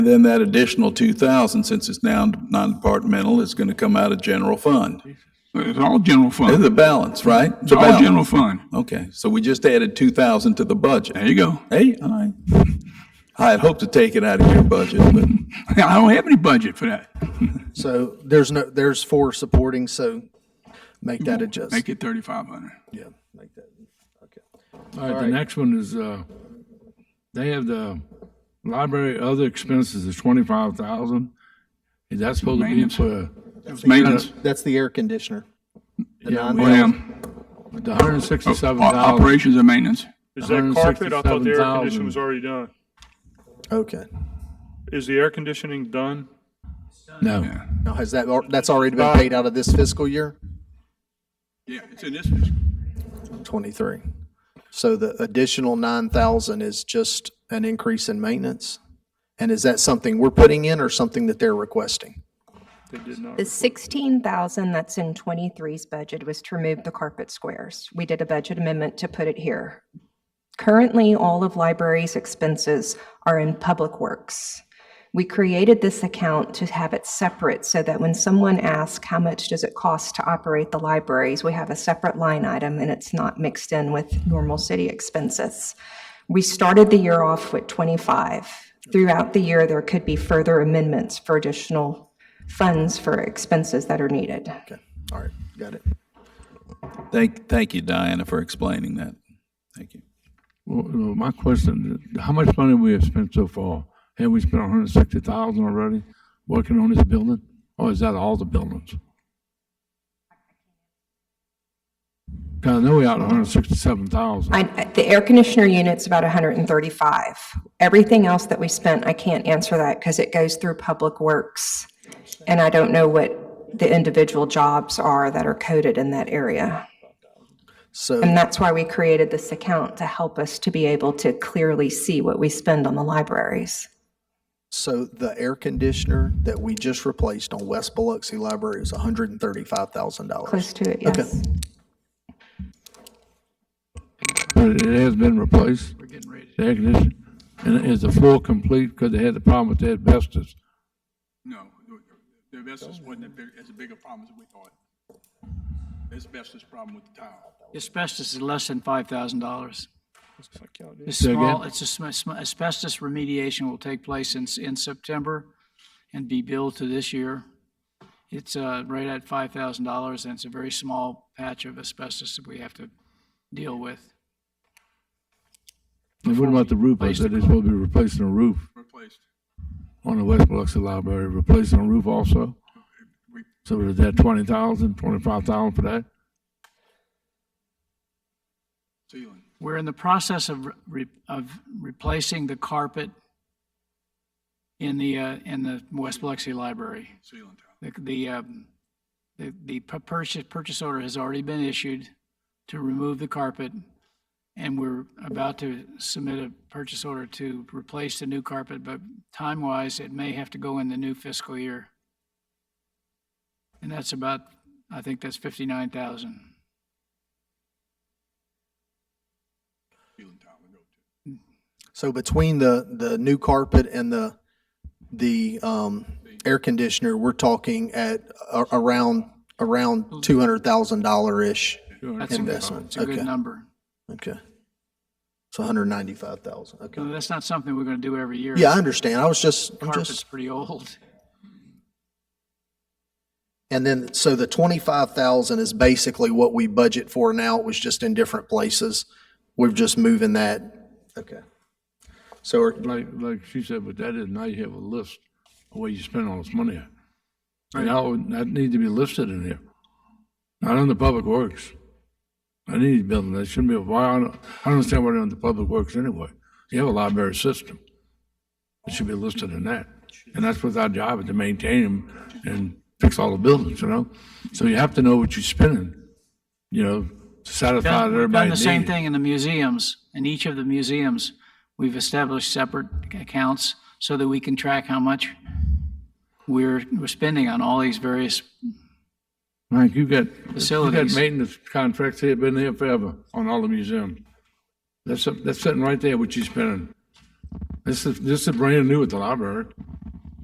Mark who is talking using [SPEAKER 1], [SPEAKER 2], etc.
[SPEAKER 1] And then that additional 2,000, since it's now non-departmental, is going to come out of general fund.
[SPEAKER 2] It's all general
[SPEAKER 1] It's
[SPEAKER 2] fund.
[SPEAKER 1] a balance, right?
[SPEAKER 2] It's all general fund.
[SPEAKER 1] Okay, so we just added 2,000 to the budget.
[SPEAKER 2] There you go.
[SPEAKER 1] Hey, all right. I had hoped to take it out of your budget, but
[SPEAKER 2] I don't have any budget for that.
[SPEAKER 3] So there's no, there's four supporting, so make that adjustment.
[SPEAKER 2] Mm-hmm. Make it thirty-five hundred.
[SPEAKER 3] Yeah, make that.
[SPEAKER 4] All right, the next one is, uh, they have the library other expenses is twenty-five thousand. Is that supposed to be
[SPEAKER 2] Maintenance.
[SPEAKER 4] for
[SPEAKER 2] It's maintenance.
[SPEAKER 3] That's the air conditioner. The
[SPEAKER 4] Yeah,
[SPEAKER 3] nine
[SPEAKER 4] well,
[SPEAKER 3] thousand.
[SPEAKER 2] Um,
[SPEAKER 4] the hundred and
[SPEAKER 2] o-
[SPEAKER 4] sixty-seven thousand?
[SPEAKER 2] Operations and maintenance.
[SPEAKER 5] Is that carpet? I thought the air conditioning was
[SPEAKER 4] 167,000.
[SPEAKER 5] already done.
[SPEAKER 3] Okay.
[SPEAKER 5] Is the air conditioning done?
[SPEAKER 4] No,
[SPEAKER 3] Now, has that, al- that's already been paid out of this fiscal year?
[SPEAKER 2] Yeah, it's in this, fiscal-
[SPEAKER 3] Twenty-three. So the additional nine thousand is just an increase in maintenance? And is that something we're putting in or something that they're requesting?
[SPEAKER 5] They did not.
[SPEAKER 6] The 16,000 that's in 23's budget was to remove the carpet squares. We did a budget amendment to put it here. Currently, all of library's expenses are in Public Works. We created this account to have it separate so that when someone asks, how much does it cost to operate the libraries? We have a separate line item and it's not mixed in with normal city expenses. We started the year off with 25. Throughout the year, there could be further amendments for additional funds for expenses that are needed.
[SPEAKER 3] Okay, all right, got it.
[SPEAKER 1] thank, thank you, Diana, for explaining that. Thank you.
[SPEAKER 4] Well, well, my question, how much money we have spent so far? Have we spent hundred and sixty thousand already working on this building? Or is that all the buildings? 'Cause I know we out hundred and sixty-seven thousand.
[SPEAKER 6] I, the air conditioner unit's about 135. Everything else that we spent, I can't answer that because it goes through Public Works. And I don't know what the individual jobs are that are coded in that area.
[SPEAKER 3] So,
[SPEAKER 6] And that's why we created this account to help us to be able to clearly see what we spend on the libraries.
[SPEAKER 3] so the air conditioner that we just replaced on West Biloxi Library is hundred and thirty-five thousand dollars.
[SPEAKER 6] Close to it, yes.
[SPEAKER 4] But it has been replaced. We're getting ready. The air conditioning. And is the floor complete because they had the problem with the asbestos?
[SPEAKER 2] no, the asbestos wasn't as big, as big a problem as we thought. Asbestos problem with the tile.
[SPEAKER 7] Asbestos is less than five thousand dollars. It's
[SPEAKER 4] Say again?
[SPEAKER 7] small, it's a sm- sm- asbestos remediation will take place in, s- in September and be billed to this year. It's, uh, right at five thousand dollars and it's a very small patch of asbestos that we have to deal with.
[SPEAKER 4] And what about the roof? I said they're supposed to be replacing a roof
[SPEAKER 2] Replaced.
[SPEAKER 4] on the West Biloxi Library, replacing a roof also? So is that twenty thousand, twenty-five thousand for that?
[SPEAKER 2] Ceiling.
[SPEAKER 7] We're in the process of, re- of replacing the carpet in the, uh, in the West Biloxi Library.
[SPEAKER 2] Ceiling tile.
[SPEAKER 7] The, the, um, the, the pu- purchase, purchase order has already been issued to remove the carpet, and we're about to submit a purchase order to replace the new carpet, but time-wise, it may have to go in the new fiscal year. And that's about, I think that's fifty-nine thousand.
[SPEAKER 3] So between the, the new carpet and the, the, um, air conditioner, we're talking at a- around, around two hundred thousand dollar-ish
[SPEAKER 7] That's a good-
[SPEAKER 3] investment.
[SPEAKER 7] It's a good
[SPEAKER 3] Okay,
[SPEAKER 7] number.
[SPEAKER 3] okay. It's hundred ninety-five thousand, okay.
[SPEAKER 7] So That's not something we're gonna do every year.
[SPEAKER 3] Yeah, I understand. I was just, I'm
[SPEAKER 7] Carpet's
[SPEAKER 3] just,
[SPEAKER 7] pretty old.
[SPEAKER 3] and then, so the twenty-five thousand is basically what we budget for now. It was just in different places. We're just moving that. Okay. So are,
[SPEAKER 4] Like, like she said, but that is, now you have a list of where you spend all this money. at. And that would, that need to be listed in here, not on the public works. I need to build, that shouldn't be, why, on- I don't understand why they're on the public works anyway. You have a library system. It should be listed in that. And that's what's our job, is to maintain them and fix all the buildings, you know? So you have to know what you're spending, you know, to satisfy
[SPEAKER 7] done- We've done
[SPEAKER 4] everybody's
[SPEAKER 7] the
[SPEAKER 4] needs.
[SPEAKER 7] same thing in the museums. In each of the museums, we've established separate accounts so that we can track how much we're, we're spending on all these various,
[SPEAKER 4] Mike, you got, you got
[SPEAKER 7] Facilities.
[SPEAKER 4] maintenance contracts here, been here forever on all the museums. That's, that's sitting right there, what you spending. This is, this is brand new at the library.